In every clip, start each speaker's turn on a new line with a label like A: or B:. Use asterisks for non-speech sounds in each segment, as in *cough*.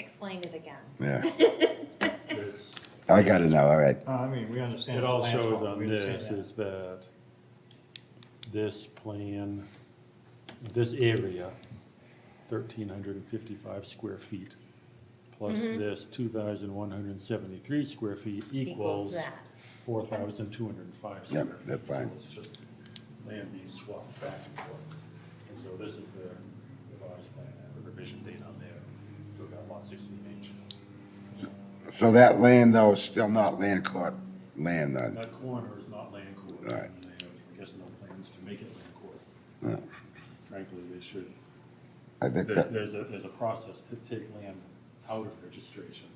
A: explain it again.
B: yeah.
C: It's-
B: I got it now, all right.
D: Uh, I mean, we understand.
C: It
D: it's
C: all
D: land swap.
C: shows on
D: We understand
C: this
D: that.
C: is that this plan, this area, thirteen hundred and fifty-five square feet, plus
A: Mm-hmm.
C: this two thousand one hundred and seventy-three square feet
A: Equals
C: equals
A: that.
C: four thousand two hundred and five
B: Yep,
C: square feet.
B: that's
C: So
B: fine.
C: It's just land being swapped back and forth. And so this is the revised plan, I have a revision date on there, so we've got lot sixteen H.
B: So that land though is still not land court land then?
C: That corner is not land court.
B: Right.
C: They have, I guess, no plans to make it land court.
B: No.
C: Frankly, they should.
B: I think
C: There-
B: that,
C: There's a, there's a process to take land out of registration.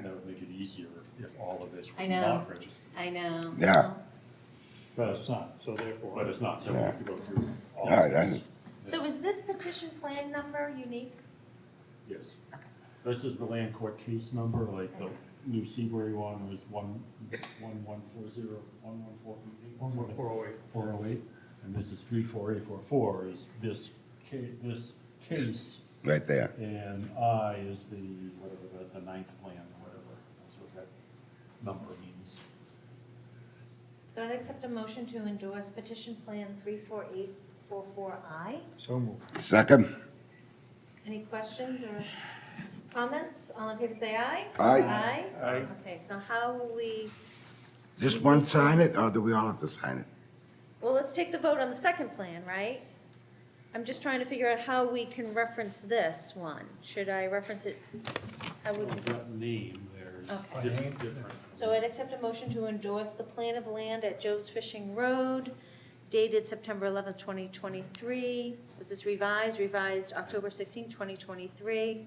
C: That would make it easier if, if all of this
A: I
C: were
A: know.
C: not registered.
A: I know.
B: Yeah.
D: But it's not, so therefore.
C: But it's not, so we have to go through all
B: Yeah, I- I
C: of this.
A: So is this petition plan number unique?
C: Yes. This is the land court case number, like the new Seabury one was one, one, one, four, zero, one, one, four, eight,
D: One more four oh eight.
C: four oh eight, and this is three, four, eight, four, four, is this ca- this case,
B: right there.
C: and I is the, whatever, the, the ninth plan, or whatever, that's what that number means.
A: So I'd accept a motion to endorse petition plan 34844I.
D: So moved.
B: Second?
A: Any questions or comments? All in favor, say aye.
B: Aye.
A: Aye? Okay, so how will we,
B: Just one sign it or do we all have to sign it?
A: well, let's take the vote on the second plan, right? I'm just trying to figure out how we can reference this one. Should I reference it? How would you?
C: That name, there's
A: Okay.
C: diff- different.
A: So I'd accept a motion to endorse the plan of land at Joe's Fishing Road dated September 11th, 2023. Was this revised, revised October 16th, 2023?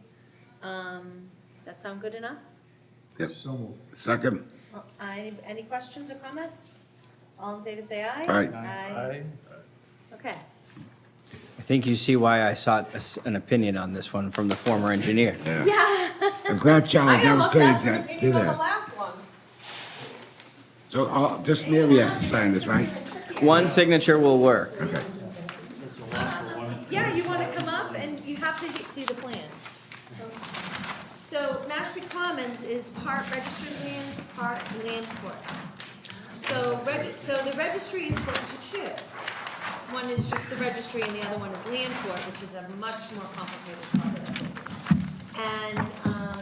A: Um, That sound good enough?
B: Yep.
D: So moved.
B: Second?
A: Well, I- Any questions or comments? All in favor, say aye.
B: Aye.
A: Aye. Okay.
E: I think you see why I sought a s- an opinion on this one from the former engineer.
B: Yeah.
A: Yeah.
B: I'm glad
A: *laughs*
B: Charlie
A: I
B: Downs
A: almost
B: did
A: asked
B: that,
A: if
B: did
A: you on the
B: that.
A: last one.
B: So, uh, just Mary has to sign this, right?
E: One signature will work.
B: Okay.
C: It's a lot for one.
A: Yeah, you want to come up and you have to see the plan. So Mashpee Commons is part registered land, part land court. So, reg- so the registry is split into two. One is just the registry and the other one is land court, which is a much more complicated process. And, um,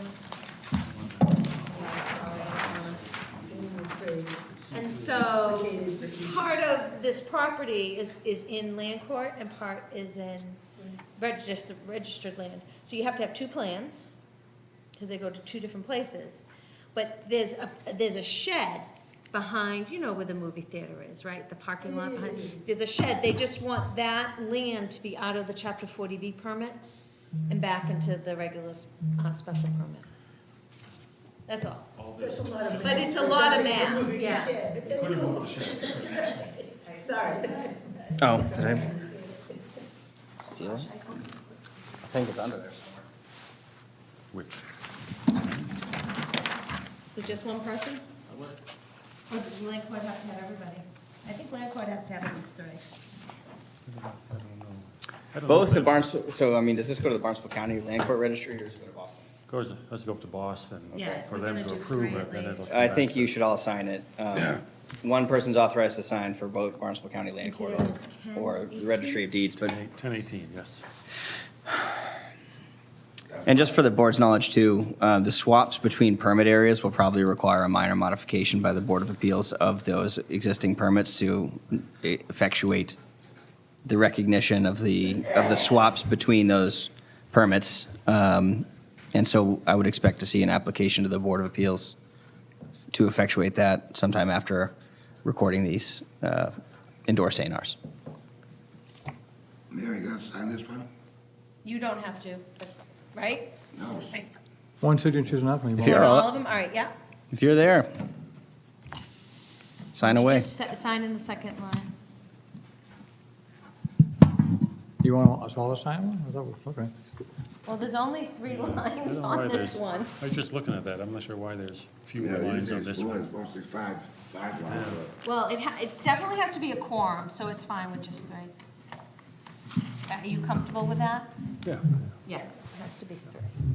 A: and so, part of this property is, is in land court and part is in registered, registered land. So you have to have two plans, because they go to two different places. But there's a, there's a shed behind, you know where the movie theater is, right? The parking lot behind, there's a shed, they just want that land to be out of the chapter forty B permit and back into the regular, s- uh, special permit. That's all.
C: All this,
F: That's a lot of
A: But it's a
F: math.
A: lot of
F: Something
A: math,
F: moving the
A: yeah.
F: shed, but that's
C: put it
F: cool.
C: on the shelf.
F: Sorry.
E: Oh, did I steal it? I think it's under there somewhere.
B: Which?
A: So just one person? Or Oh, does land court have to have everybody? I think land court has to have at least three. Uh-huh.
C: I don't know if
E: Both the
C: that-
E: Barnstable, so I mean, does this go to the Barnstable County Land Court Registry or does it go to Boston?
C: Goes, has to go up to Boston
A: Yeah,
C: for
A: we're
C: them
A: gonna do
C: to approve
A: three at
C: it, then it'll.
A: least.
C: come
E: I
C: back
E: think
C: to-
E: you should all sign it. Um,
B: Yeah.
E: One person's authorized to sign for both Barnstable County Land
A: And
E: Court
A: today is 10,
E: or the Registry of Deeds, but
C: Ten eighteen, yes.
E: And just for the board's knowledge too, uh, the swaps between permit areas will probably require a minor modification by the Board of Appeals of those existing permits to eh, effectuate the recognition of the, of the swaps between those permits. Um, And so I would expect to see an application to the Board of Appeals to effectuate that sometime after recording these uh, endorsed A and Rs.
B: Mary, you gonna sign this one?
A: You don't have to, but- right?
B: No.
A: Right.
D: One signature is enough, maybe.
E: If you're
A: All
E: all-
A: of them, all right, yeah?
E: if you're there, sign away.
A: Just si- sign in the second line.
D: You want us all to sign one? I thought we- Okay.
A: Well, there's only three
C: I don't
A: lines
C: know why
A: on this
C: there's-
A: one.
C: I was just looking at that, I'm not sure why there's fewer
B: Yeah,
C: lines on
B: it's
C: this
B: four,
C: one.
B: it's mostly five, five lines.
A: Well, it, ha- it definitely has to be a quorum, so it's fine with just three. Are you comfortable with that?
C: Yeah,
A: Yeah, it has to be three.